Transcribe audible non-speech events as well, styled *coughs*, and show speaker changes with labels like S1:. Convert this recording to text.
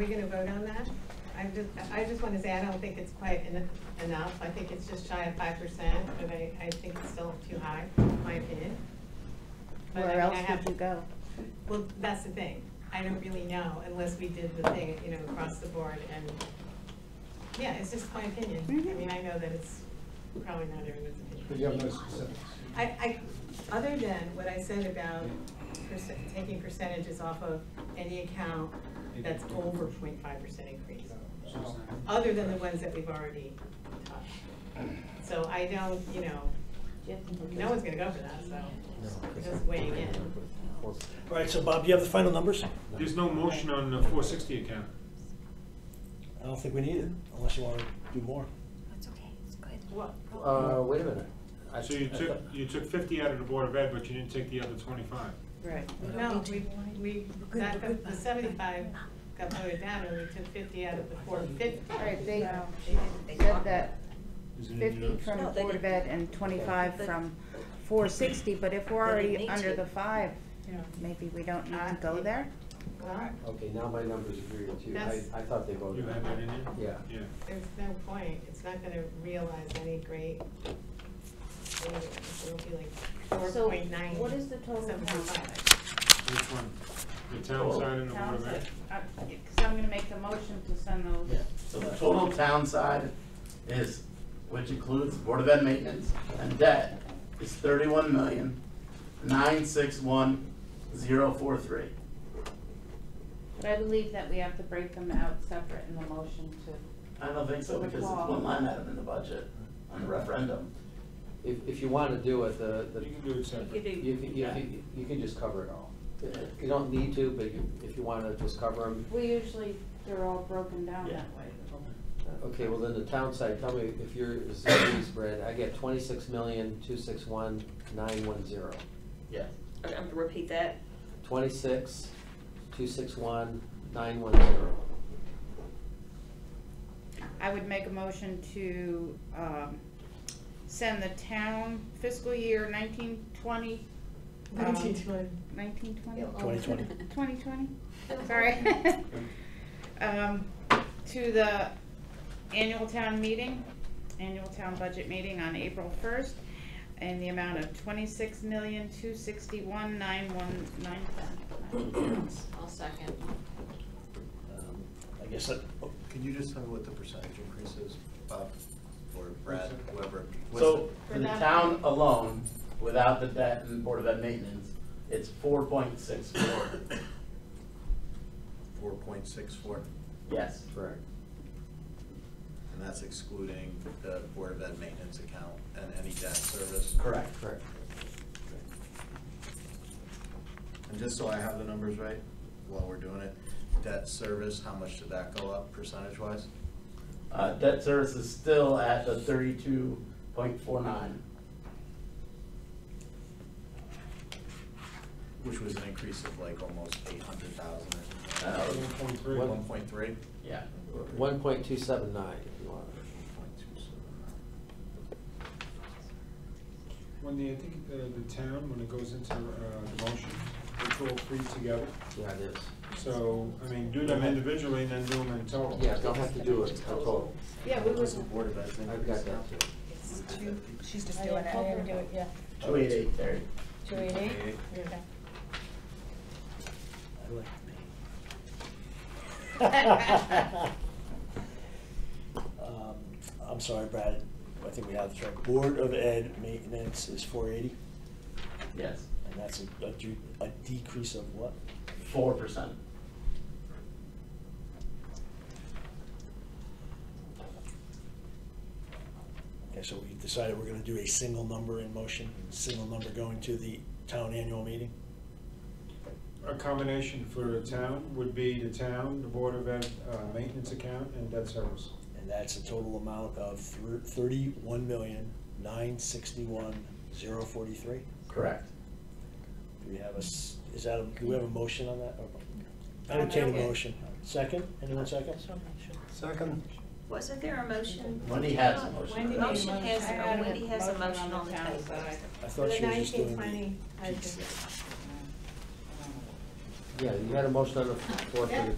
S1: Are we gonna vote on that? I just, I just wanna say, I don't think it's quite en- enough, I think it's just shy of five percent, but I, I think it's still too high, in my opinion. But I
S2: Where
S1: mean,
S2: else
S1: I have-
S2: would you go?
S1: Well, that's the thing, I don't really know unless we did the thing, you know, across the board and, yeah, it's just my opinion. I
S2: Mhm.
S1: mean, I know that it's probably not everyone's opinion.
S3: But you have no specifics.
S1: I, I, other than what I said about percent, taking percentages off of any account that's over 0.5 percent increase, other than the ones that we've already touched. So I don't, you know, no one's gonna go for that, so just weighing in.
S4: All right, so Bob, do you have the final numbers? I
S5: There's no motion on the four sixty account.
S4: don't think we need it, unless you want to do more.
S6: It's okay, it's good.
S1: What,
S3: Uh, wait a minute. I-
S5: So you took, you took fifty out of the Board of Ed, but you didn't take the other twenty-five.
S2: Right.
S1: no, we, we, that, the- the seventy-five got voted down and we took fifty out of the four fifty.
S2: All right, they
S6: They
S2: said
S6: talked
S2: that
S5: Is it in
S2: fifty
S5: yours?
S2: from
S6: No, they
S2: Board of Ed
S6: didn't.
S2: and twenty-five
S6: But-
S2: from four sixty, but if we're
S6: They
S2: already
S6: didn't need
S2: under
S6: to.
S2: the five,
S1: Yeah.
S2: maybe we don't need to
S1: Uh,
S2: go
S1: it-
S2: there?
S1: Well,
S3: Okay, now my numbers agree with you. I,
S1: That's-
S3: I thought they
S5: You
S3: voted.
S5: had that in there?
S3: Yeah.
S5: Yeah.
S1: there's no point, it's not gonna realize any great, savings. it'll be like four point nine.
S7: So what is the total count?
S5: Which one? The town side and the Board of Ed?
S7: Because uh, I'm gonna make the motion to send
S8: Yeah,
S7: those.
S8: so the total town side is, which includes Board of Ed maintenance and debt, is thirty-one million, nine six one, zero four three.
S7: But I believe that we have to break them out separate in the motion to,
S8: I don't think so, because it's one line item in the budget, on the referendum.
S3: If, if you want to do it, the, the,
S5: You can do it separate.
S3: you, can- you, can- you can just cover it all. You don't need to, but you- if you want to just cover them,
S7: we usually, they're all broken down
S8: Yeah.
S7: that way.
S3: okay, well then the town side, tell me if you're, is this spread, I get twenty-six million, two six one, nine one zero.
S8: Yes.
S6: I'm gonna repeat that.
S3: Twenty-six, two six one, nine one zero.
S7: I would make a motion to, um, send the town fiscal year nineteen twenty, um,
S1: Nineteen twenty.
S7: nineteen twenty?
S4: Twenty twenty.
S7: Twenty twenty, sorry. *laughs* Um, to the annual town meeting, annual town budget meeting on April first, in the amount of twenty-six million, two sixty-one, nine one, nine
S6: I'll second.
S4: Um, I guess that, oh,
S9: Could you just tell me what the percentage increase is, Bob, or Brad, whoever? What's
S8: So, for the
S1: Without-
S8: town alone, without the debt and Board of Ed maintenance, it's four point
S3: *coughs*
S8: six four,
S9: Four point six four,
S8: yes.
S3: Correct.
S9: and that's excluding the Board of Ed maintenance account and any debt service?
S8: Correct.
S3: Correct.
S9: And just so I have the numbers right, while we're doing it, debt service, how much did that go up percentage-wise?
S8: Uh, debt service is still at the thirty-two point four nine.
S9: Which was an increase of like almost eight hundred thousand or something.
S8: Uh,
S5: One point three.
S3: What?
S9: One point three?
S8: Yeah.
S3: One point two seven nine, if you want.
S9: Point two seven.
S5: When the, I think, uh, the town, when it goes into, uh, the motion, it's all three together.
S3: Yeah, it is.
S5: So, I mean, do them individually and then do them in total.
S3: Yeah, don't have to do it in total.
S1: Yeah, we was,
S9: What's the Board of Ed's
S3: I've got
S9: increase now?
S3: that too.
S1: it's two, she's just doing it. do it, yeah.
S8: Two eight eight thirty.
S1: Two eight eight?
S9: Eight.
S4: I like me. *laughs* Um, I'm sorry, Brad, I think we have the right. Board of Ed maintenance is four eighty,
S8: Yes.
S4: and that's a, a de- a decrease of what?
S8: Four percent.
S4: Okay, so we decided we're gonna do a single number in motion, single number going to the town annual meeting?
S5: A combination for the town would be the town, the Board of Ed, uh, maintenance account and debt service.
S4: And that's a total amount of thirty-one million, nine sixty-one, zero forty-three?
S8: Correct.
S4: Do we have a, s- is that, a- do we have a motion on that?
S7: Um,
S4: Entertain a
S7: okay.
S4: motion. Second, anyone second? Second.
S6: Wasn't there a motion?
S8: Wendy has a motion.
S1: Wendy made a
S6: Motion has,
S1: motion.
S6: oh, Wendy has a
S7: Motion on
S6: motion on
S7: the
S6: the
S7: town
S6: table.
S7: side.
S4: I thought she was just doing the.
S1: I just-
S3: Yeah, you had a motion on the floor for the
S1: Yeah.